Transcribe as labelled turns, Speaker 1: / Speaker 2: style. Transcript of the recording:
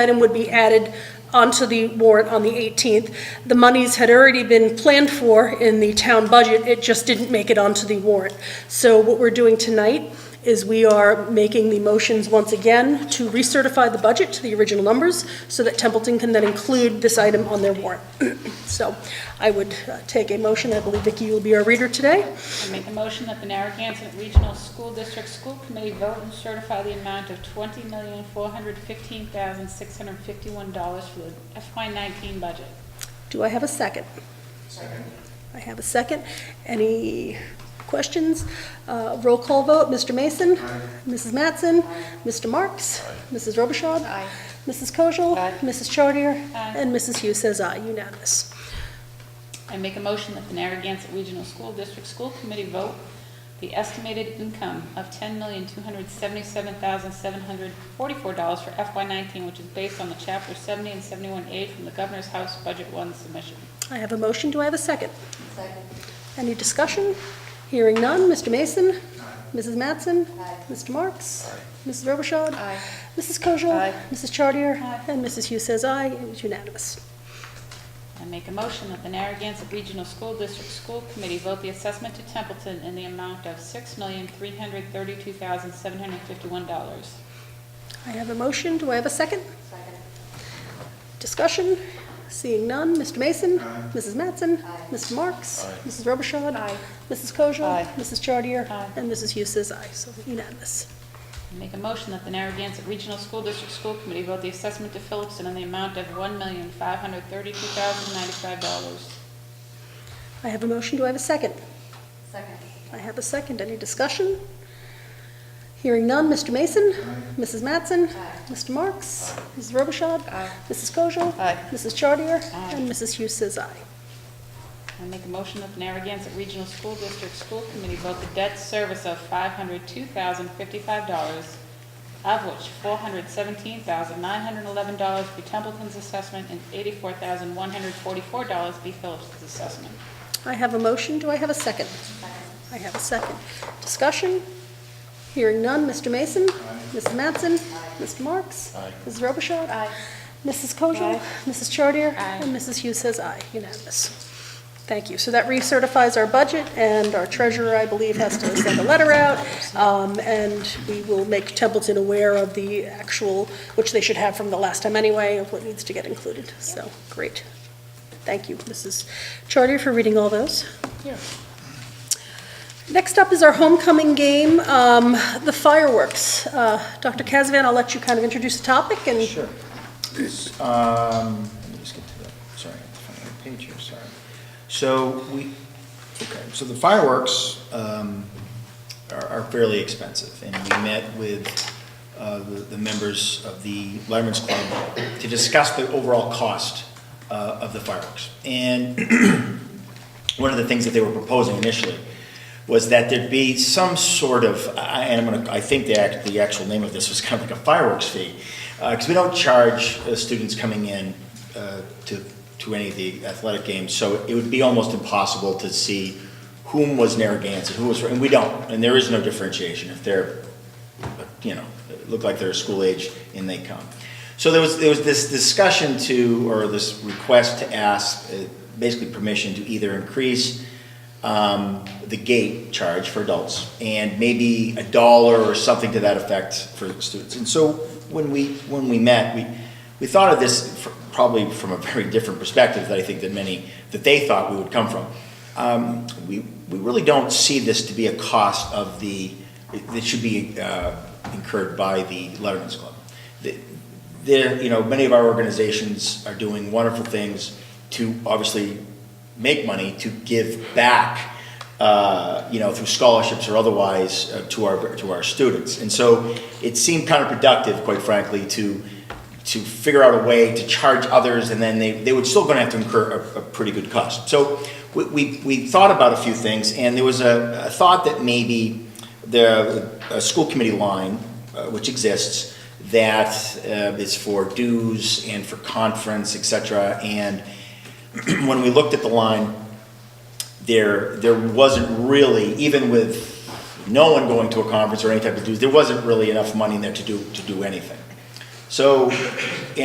Speaker 1: item would be added onto the warrant on the 18th. The monies had already been planned for in the town budget, it just didn't make it onto the warrant. So what we're doing tonight is we are making the motions once again to recertify the budget to the original numbers so that Templeton can then include this item on their warrant. So I would uh, take a motion, I believe Vicki will be our reader today.
Speaker 2: I make a motion that the Narragansett Regional School District School Committee vote and certify the amount of twenty million, four hundred fifteen thousand, six hundred fifty-one dollars for the FY nineteen budget.
Speaker 1: Do I have a second? Second. I have a second. Any questions? Uh, Roll call vote, Mr. Mason? Mrs. Mattson? Mr. Marks? Mrs. Robichaud?
Speaker 2: Aye.
Speaker 1: Mrs. Kojal?
Speaker 2: Aye.
Speaker 1: Mrs. Chartier?
Speaker 2: Aye.
Speaker 1: And Mrs. Hughes says aye, unanimous.
Speaker 2: I make a motion that the Narragansett Regional School District School Committee vote the estimated income of ten million, two hundred seventy-seven thousand, seven hundred forty-four dollars for FY nineteen, which is based on the chapter seventy and seventy-one A from the Governor's House Budget One submission.
Speaker 1: I have a motion, do I have a second?
Speaker 3: Second.
Speaker 1: Any discussion? Hearing none, Mr. Mason? Mrs. Mattson? Mrs. Mr. Marks? Mrs. Robichaud?
Speaker 2: Aye.
Speaker 1: Mrs. Kojal?
Speaker 2: Aye.
Speaker 1: Mrs. Chartier?
Speaker 2: Aye.
Speaker 1: And Mrs. Hughes says aye, it was unanimous.
Speaker 2: I make a motion that the Narragansett Regional School District School Committee vote the assessment to Templeton in the amount of $6,332,751.
Speaker 1: I have a motion, do I have a second?
Speaker 3: Second.
Speaker 1: Discussion? Seeing none. Mr. Mason? Mrs. Mattson? Mr. Marks? Mrs. Robichaud?
Speaker 2: Aye.
Speaker 1: Mrs. Kojal?
Speaker 2: Aye.
Speaker 1: Mrs. Chartier?
Speaker 2: Aye.
Speaker 1: And Mrs. Hughes says aye, so unanimous.
Speaker 2: I make a motion that the Narragansett Regional School District School Committee vote the assessment to Phillipston in the amount of $1,532,095.
Speaker 1: I have a motion, do I have a second?
Speaker 3: Second.
Speaker 1: I have a second, any discussion? Hearing none. Mr. Mason? Mrs. Mattson? Mr. Marks? Mrs. Robichaud? Mrs. Kojal?
Speaker 2: Aye.
Speaker 1: Mrs. Chartier?
Speaker 2: Aye.
Speaker 1: And Mrs. Hughes says aye.
Speaker 2: I make a motion that the Narragansett Regional School District School Committee vote the debt service of $502,055, of which $417,911 be Templeton's assessment and $84,144 be Phillips's assessment.
Speaker 1: I have a motion, do I have a second? I have a second. Discussion? Hearing none, Mr. Mason? Mrs. Mattson? Mrs. Mr. Marks? Mrs. Robichaud? Mrs. Kojal? Mrs. Chartier?
Speaker 2: Aye.
Speaker 1: And Mrs. Hughes says aye, unanimous. Thank you. So that recertifies our budget, and our treasurer, I believe, has to send a letter out, um, and we will make Templeton aware of the actual, which they should have from the last time anyway, of what needs to get included. So, great. Thank you, Mrs. Chartier, for reading all those. Next up is our homecoming game, um, the fireworks. Uh, Dr. Kazavan, I'll let you kind of introduce the topic and.
Speaker 4: Sure. Um, let me just get to the, sorry, I have to find the page here, sorry. So we, okay, so the fireworks, um, are, are fairly expensive, and we met with, uh, the, the members of the Letterman's Club to discuss the overall cost, uh, of the fireworks. And one of the things that they were proposing initially was that there'd be some sort of, I- and I'm gonna, I think the act, the actual name of this was kind of like a fireworks fee, because we don't charge uh, students coming in uh, to, to any of the athletic games, so it would be almost impossible to see whom was Narragansett, who was, and we don't, and there is no differentiation. If they're you know, look like they're school age and they come. So there was, there was this discussion to, or this request to ask, uh, basically permission to either increase um, the gate charge for adults and maybe a dollar or something to that effect for students. And so when we, when we met, we, we thought of this fr- probably from a very different perspective that I think that many, that they thought we would come from. Um, We, we really don't see this to be a cost of the, that should be uh, incurred by the Letterman's Club. The- There, you know, many of our organizations are doing wonderful things to obviously make money, to give back, uh, you know, through scholarships or otherwise uh, to our, to our students. And so it seemed counterproductive, quite frankly, to, to figure out a way to charge others, and then they, they would still gonna have to incur a, a pretty good cost. So we, we, we thought about a few things, and there was a, a thought that maybe the, a school committee line, uh, which exists, that uh, is for dues and for conference, et cetera, and when we looked at the line, there, there wasn't really, even with no one going to a conference or any type of dues, there wasn't really enough money in there to do, to do anything. So,